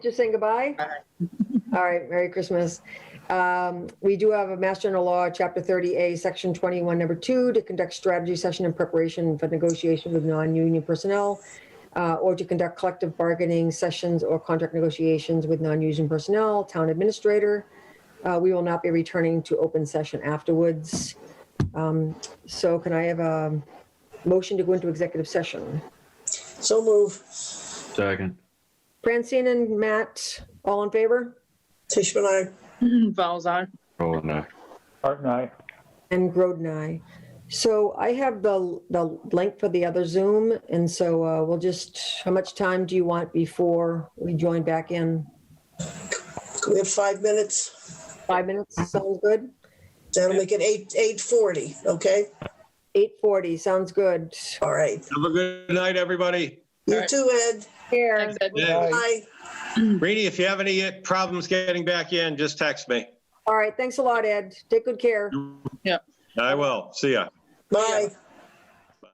Just saying goodbye? All right, Merry Christmas. Um, We do have a Mass General Law, Chapter 30A, Section 21, Number 2, to conduct strategy session in preparation for negotiation with non-union personnel uh, or to conduct collective bargaining sessions or contract negotiations with non-union personnel, town administrator. Uh, We will not be returning to open session afterwards. Um, So can I have a motion to go into executive session? So move. Second. Francine and Matt, all in favor? Tishman, I. Vowels are. Roll and I. Art and I. And Groden, aye. So I have the, the link for the other Zoom, and so uh, we'll just, how much time do you want before we join back in? We have five minutes. Five minutes, sounds good? That'll make it eight, eight forty, okay? 8:40, sounds good. All right. Have a good night, everybody. You too, Ed. Here, Thanks, Ed. Yeah. Bye. Rainey, if you have any uh, problems getting back in, just text me. all right, thanks a lot, Ed. Take good care. I will. See ya. Bye.